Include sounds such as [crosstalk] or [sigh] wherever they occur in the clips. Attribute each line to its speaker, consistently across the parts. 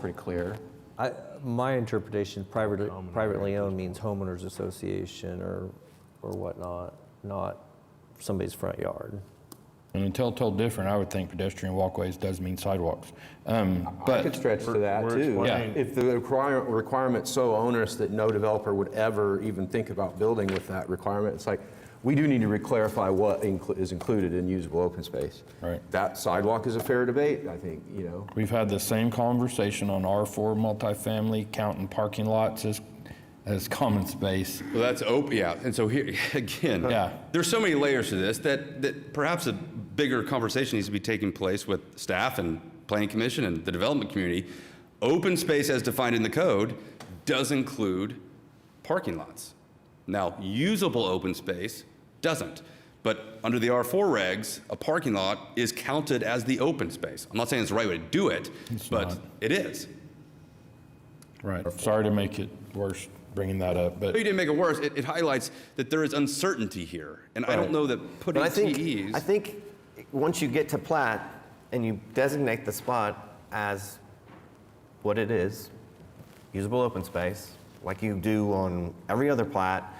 Speaker 1: pretty clear.
Speaker 2: I, my interpretation, privately, privately owned means homeowners association or, or whatnot, not somebody's front yard.
Speaker 3: And until told different, I would think pedestrian walkways does mean sidewalks. Um,
Speaker 1: I could
Speaker 3: But,
Speaker 1: stretch to that,
Speaker 4: we're
Speaker 1: too.
Speaker 3: explaining-
Speaker 1: If the require- requirement's so onerous that no developer would ever even think about building with that requirement, it's like, we do need to reclarify what inclu- is included in usable open space.
Speaker 3: Right.
Speaker 1: That sidewalk is a fair debate, I think, you know?
Speaker 3: we've had the same conversation on R4 multifamily, counting parking lots as, as common space.
Speaker 5: Well, that's open, yeah. And so here, [laughs] again,
Speaker 3: Yeah.
Speaker 5: there's so many layers to this that, that perhaps a bigger conversation needs to be taking place with staff and planning commission and the development community. Open space as defined in the code does include parking lots. Now, usable open space doesn't. But under the R4 regs, a parking lot is counted as the open space. I'm not saying it's the right way to do it, but
Speaker 3: not.
Speaker 5: it is.
Speaker 3: Right. Sorry to make it worse bringing that up, but
Speaker 5: But you didn't make it worse. It, it highlights that there is uncertainty here, and I don't know that putting
Speaker 6: But I think,
Speaker 5: TEs.
Speaker 6: I think once you get to plat and you designate the spot as what it is, usable open space, like you do on every other plat,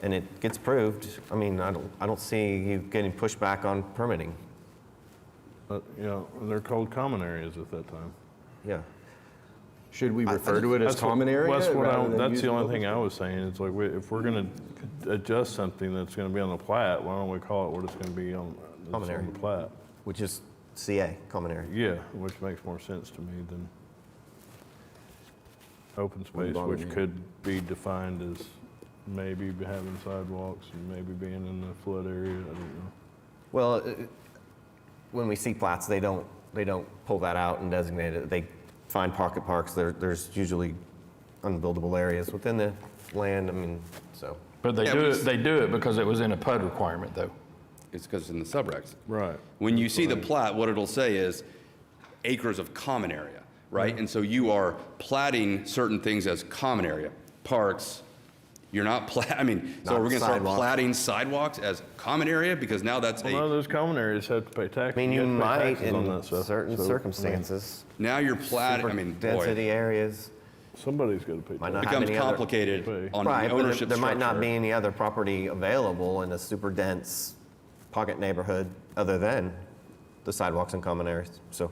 Speaker 6: and it gets approved, I mean, I don't, I don't see you getting pushback on permitting.
Speaker 4: But, you know, they're called common areas at that time.
Speaker 6: Yeah.
Speaker 1: Should we refer to it as
Speaker 4: That's what-
Speaker 1: common area?
Speaker 4: That's what I,
Speaker 1: rather than
Speaker 4: that's the
Speaker 1: usable
Speaker 4: only
Speaker 1: open
Speaker 4: thing I was saying, it's like, we- if we're gonna adjust something that's gonna be on the plat, why don't we call it what it's gonna be on, that's
Speaker 6: Common
Speaker 4: on
Speaker 6: area.
Speaker 4: the plat?
Speaker 6: Which is CA, common area.
Speaker 4: Yeah, which makes more sense to me than open space,
Speaker 1: bother
Speaker 4: which
Speaker 1: me.
Speaker 4: could be defined as maybe having sidewalks and maybe being in the flood area, I don't know.
Speaker 6: Well, uh, when we see plats, they don't, they don't pull that out and designate it. They find pocket parks. There, there's usually unbuildable areas within the land. I mean, so.
Speaker 3: but they
Speaker 5: Yeah,
Speaker 3: do
Speaker 5: we
Speaker 3: it,
Speaker 5: s-
Speaker 3: they do it because it was in a PUD requirement though.
Speaker 5: It's because it's in the subregs.
Speaker 4: Right.
Speaker 5: When you see the plat, what it'll say is acres of common area, right?
Speaker 6: Mm-hmm.
Speaker 5: And so you are platting certain things as common area, parks. You're not plat. I mean, so
Speaker 6: Not
Speaker 5: we're going to start
Speaker 6: sidewalks.
Speaker 5: platting sidewalks as common area because now that's
Speaker 4: Well, none of
Speaker 5: a
Speaker 4: those common areas have to pay tax.
Speaker 6: I mean,
Speaker 4: you
Speaker 6: you
Speaker 4: have to pay
Speaker 6: might
Speaker 4: taxes on
Speaker 6: in
Speaker 4: that stuff,
Speaker 6: certain
Speaker 4: so, I mean,
Speaker 6: circumstances.
Speaker 5: now you're platting. I
Speaker 6: super
Speaker 5: mean, boy,
Speaker 6: Density areas.
Speaker 4: Somebody's got to pay
Speaker 6: Might
Speaker 4: taxes.
Speaker 6: not have
Speaker 5: becomes
Speaker 6: any other-
Speaker 5: complicated on
Speaker 6: Right,
Speaker 5: the
Speaker 6: but there-
Speaker 5: ownership
Speaker 6: there might not
Speaker 5: structure.
Speaker 6: be any other property available in a super dense pocket neighborhood other than the sidewalks and common areas. So,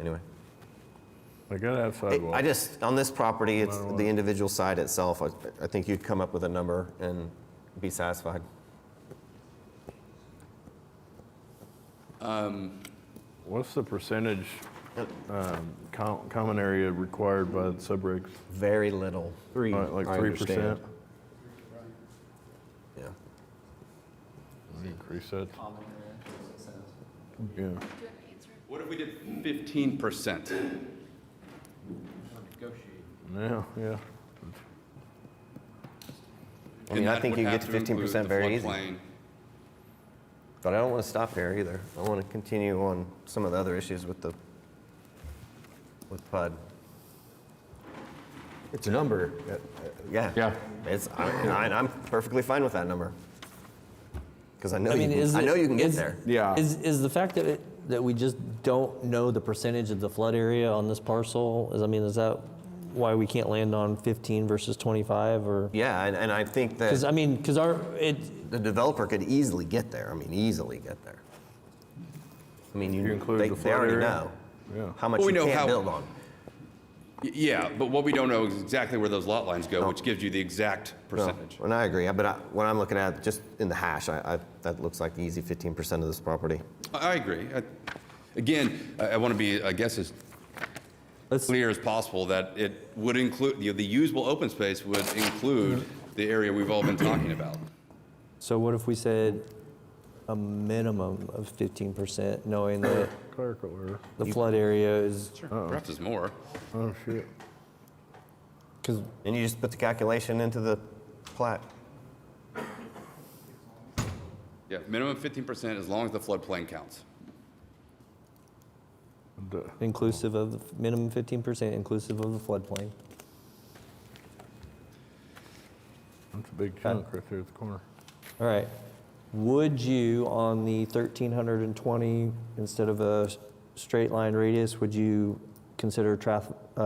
Speaker 6: anyway.
Speaker 4: They got to have
Speaker 6: It-
Speaker 4: sidewalks.
Speaker 6: I just, on this property, it's the individual side itself, I, I think you'd come up with a number and be satisfied.
Speaker 4: What's the percentage um, com- common area required by the subregs?
Speaker 6: Very little,
Speaker 1: Three,
Speaker 4: Like like
Speaker 1: I
Speaker 4: 3%?
Speaker 1: understand.
Speaker 6: yeah.
Speaker 4: Increase that. Yeah.
Speaker 5: what if we did 15 percent?
Speaker 4: Yeah, yeah.
Speaker 6: I mean, I think you get to 15% very easy, but I don't want to stop here either. I want to continue on some of the other issues with the, with PUD.
Speaker 1: It's a number.
Speaker 6: Yeah.
Speaker 3: Yeah.
Speaker 6: It's, I, I- I'm perfectly fine with that number. Because I know,
Speaker 2: I
Speaker 6: you
Speaker 2: mean,
Speaker 6: can-
Speaker 2: is
Speaker 6: I
Speaker 2: it-
Speaker 6: know you can get
Speaker 2: is-
Speaker 6: there.
Speaker 1: Yeah.
Speaker 2: Is, is the fact that, it- that we just don't know the percentage of the flood area on this parcel, is, I mean, is that why we can't land on 15 versus 25 or?
Speaker 6: Yeah, and, and I think
Speaker 2: Because,
Speaker 6: that
Speaker 2: I mean, because our, it,
Speaker 6: the developer could easily get there, I mean, easily get there. I mean,
Speaker 4: you
Speaker 6: you,
Speaker 4: include
Speaker 6: they,
Speaker 4: the
Speaker 6: they
Speaker 4: flood
Speaker 6: already
Speaker 4: area?
Speaker 6: know
Speaker 4: Yeah.
Speaker 6: how much
Speaker 5: Well, we
Speaker 6: you
Speaker 5: know
Speaker 6: can't
Speaker 5: how-
Speaker 6: build on.
Speaker 5: Yeah, but what we don't know is exactly where those lot lines go, which gives you the exact
Speaker 6: No,
Speaker 5: percentage.
Speaker 6: And I agree, but I, what I'm looking at, just in the hash, I, I, that looks like the easy 15% of this property.
Speaker 5: I I agree. I- Again, I want to be, I guess, as
Speaker 2: let's,
Speaker 5: clear as possible that it would include, you know, the usable open space would include
Speaker 6: Mm-hmm.
Speaker 5: the area we've all been talking about.
Speaker 2: so what if we said a minimum of 15%, knowing that
Speaker 4: Clerical error.
Speaker 2: the flood area is,
Speaker 5: Perhaps there's more.
Speaker 4: Oh, shit.
Speaker 2: because
Speaker 6: And you just put the calculation into the plat.
Speaker 5: Yeah, minimum 15% as long as the floodplain counts.
Speaker 4: Duh.
Speaker 2: inclusive of, the f- minimum 15% inclusive of the floodplain.
Speaker 4: That's a big chunk right there at the corner.
Speaker 2: All right. Would you, on the 1,320, instead of a s- straight line radius, would you consider traf- uh,